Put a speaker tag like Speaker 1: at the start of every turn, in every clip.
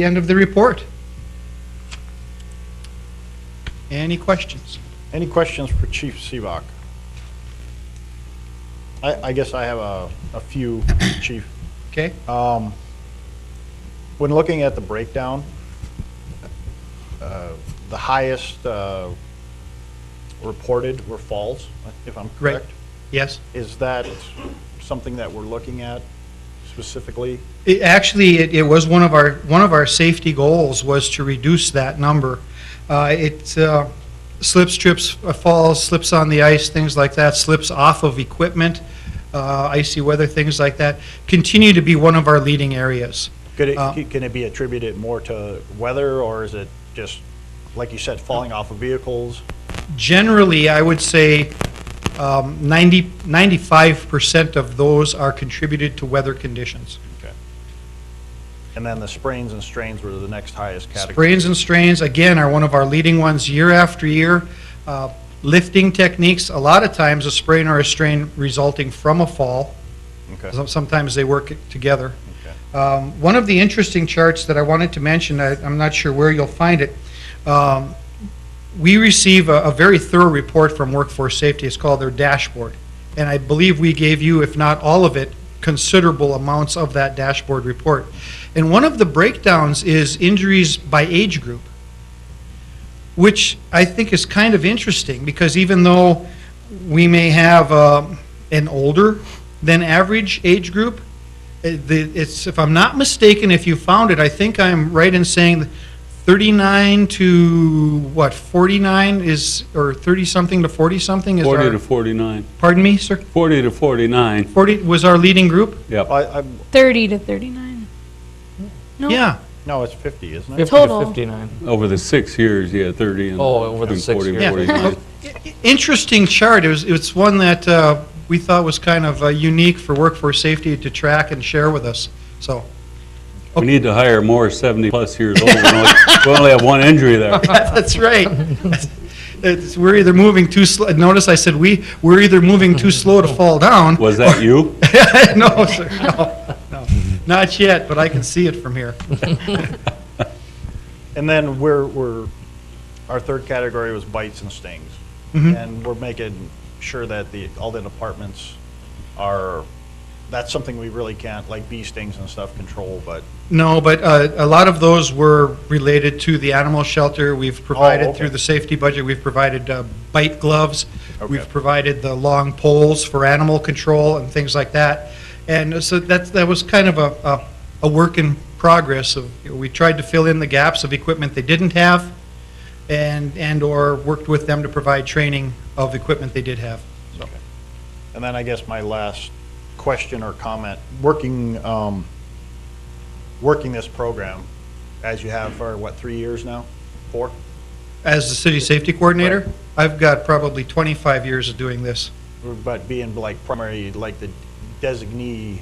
Speaker 1: the end of the report. Any questions?
Speaker 2: Any questions for Chief Seebach? I, I guess I have a, a few, Chief.
Speaker 1: Okay,
Speaker 2: Um, When looking at the breakdown, uh, the highest uh, reported were falls, if I'm
Speaker 1: Right.
Speaker 2: correct.
Speaker 1: yes.
Speaker 2: Is that something that we're looking at specifically?
Speaker 1: It, actually, it, it was one of our, one of our safety goals was to reduce that number. Uh, it, uh, slips, trips, uh, falls, slips on the ice, things like that, slips off of equipment, uh, icy weather, things like that, continue to be one of our leading areas.
Speaker 2: Could
Speaker 1: Uh,
Speaker 2: it, can it be attributed more to weather, or is it just, like you said, falling off of vehicles?
Speaker 1: Generally, I would say, um, ninety, ninety-five percent of those are contributed to weather conditions.
Speaker 2: And then the sprains and strains were the next highest category.
Speaker 1: Sprains and strains, again, are one of our leading ones year after year. Uh, Lifting techniques, a lot of times a sprain or a strain resulting from a fall.
Speaker 2: Okay.
Speaker 1: Some- Sometimes they work together.
Speaker 2: Okay.
Speaker 1: Um, One of the interesting charts that I wanted to mention, I- I'm not sure where you'll find it, um, we receive a a very thorough report from Workforce Safety, it's called their dashboard. And I believe we gave you, if not all of it, considerable amounts of that dashboard report. And one of the breakdowns is injuries by age group, which I think is kind of interesting, because even though we may have um, an older than average age group, uh, the- it's, if I'm not mistaken, if you found it, I think I'm right in saying 39 to, what, 49 is, or 30-something to 40-something is
Speaker 3: 40
Speaker 1: our,
Speaker 3: to 49.
Speaker 1: pardon me, sir?
Speaker 3: 40 to 49,
Speaker 1: 40 was our leading group?
Speaker 3: yep.
Speaker 2: I, I'm,
Speaker 4: 30 to 39. No.
Speaker 1: Yeah,
Speaker 2: no, it's 50, isn't it?
Speaker 5: 50 to
Speaker 4: Total.
Speaker 5: 59.
Speaker 3: Over the six years, yeah, 30 and...
Speaker 5: Oh, over the
Speaker 3: and
Speaker 5: six
Speaker 3: 40,
Speaker 5: years.
Speaker 1: Yeah.
Speaker 3: 49.
Speaker 1: Interesting chart. It was, it's one that uh, we thought was kind of uh, unique for workforce safety to track and share with us. So,
Speaker 3: We need to hire more 70-plus years old. We only- We only have one injury there.
Speaker 1: that's right. It's, we're either moving too slow. Notice I said we, we're either moving too slow to fall down.
Speaker 3: Was that you?
Speaker 1: no, sir, no, no. Not yet, but I can see it from here.
Speaker 2: And then we're, we're, our third category was bites and stings. And we're making sure that the, all the departments are, that's something we really can't, like bee stings and stuff, control, but
Speaker 1: No, but uh, a lot of those were related to the animal shelter. We've provided,
Speaker 2: Oh, okay.
Speaker 1: through the safety budget, we've provided uh, bite gloves. We've
Speaker 2: Okay.
Speaker 1: provided the long poles for animal control and things like that. And so that's, that was kind of a, a- a work in progress of, you know, we tried to fill in the gaps of equipment they didn't have and, and/or worked with them to provide training of equipment they did have.
Speaker 2: And then I guess my last question or comment, working, um, working this program as you have for, what, three years now? Four?
Speaker 1: As the city safety coordinator, I've got probably 25 years of doing this.
Speaker 2: But being like primary, like the designee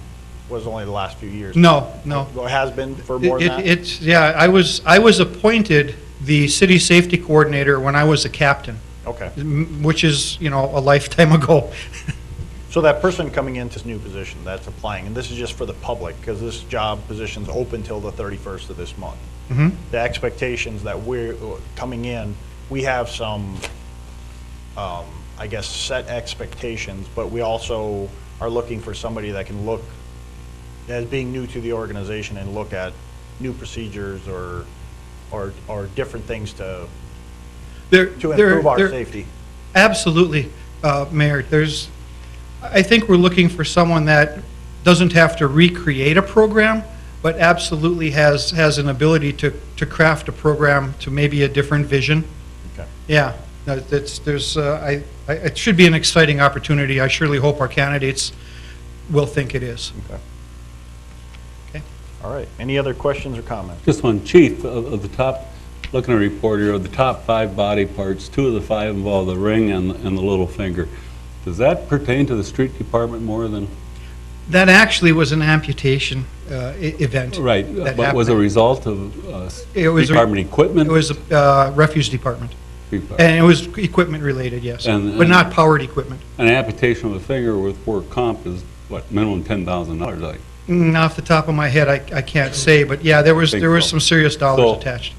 Speaker 2: was only the last few years.
Speaker 1: No, no.
Speaker 2: Well, It has been for more
Speaker 1: It-
Speaker 2: than
Speaker 1: it-
Speaker 2: that?
Speaker 1: It's, yeah, I was, I was appointed the city safety coordinator when I was a captain,
Speaker 2: Okay.
Speaker 1: m- which is, you know, a lifetime ago.
Speaker 2: So that person coming into this new position that's applying, and this is just for the public, because this job position's open till the 31st of this month.
Speaker 1: Mhm.
Speaker 2: The expectations that we're uh, coming in, we have some, um, I guess, set expectations, but we also are looking for somebody that can look, as being new to the organization and look at new procedures or, or, or different things to,
Speaker 1: They're-
Speaker 2: to
Speaker 1: they're-
Speaker 2: improve our
Speaker 1: they're-
Speaker 2: safety.
Speaker 1: Absolutely, uh, Mayor. There's, I think we're looking for someone that doesn't have to recreate a program, but absolutely has, has an ability to, to craft a program to maybe a different vision.
Speaker 2: Okay.
Speaker 1: Yeah, no, that's, there's, uh, I, I- it should be an exciting opportunity. I surely hope our candidates will think it is.
Speaker 2: All right. Any other questions or comments?
Speaker 3: Just one, chief, of of the top, looking at a report here, of the top five body parts, two of the five involve the ring and and the little finger. Does that pertain to the street department more than,
Speaker 1: That actually was an amputation uh, e- event.
Speaker 3: right,
Speaker 1: That
Speaker 3: but was a
Speaker 1: happened.
Speaker 3: result of uh,
Speaker 1: It
Speaker 3: street
Speaker 1: was a-
Speaker 3: department
Speaker 1: It
Speaker 3: equipment?
Speaker 1: was uh, refuse department,
Speaker 3: Street department.
Speaker 1: and it was equipment-related, yes,
Speaker 3: And-
Speaker 1: but not powered equipment.
Speaker 3: an amputation of a finger with work comp is, what, minimum ten thousand dollars, I
Speaker 1: Mm, Off the top of my head, I I can't say, but yeah, there was,
Speaker 3: Think
Speaker 1: there was
Speaker 3: so.
Speaker 1: some serious dollars
Speaker 3: So-
Speaker 1: attached.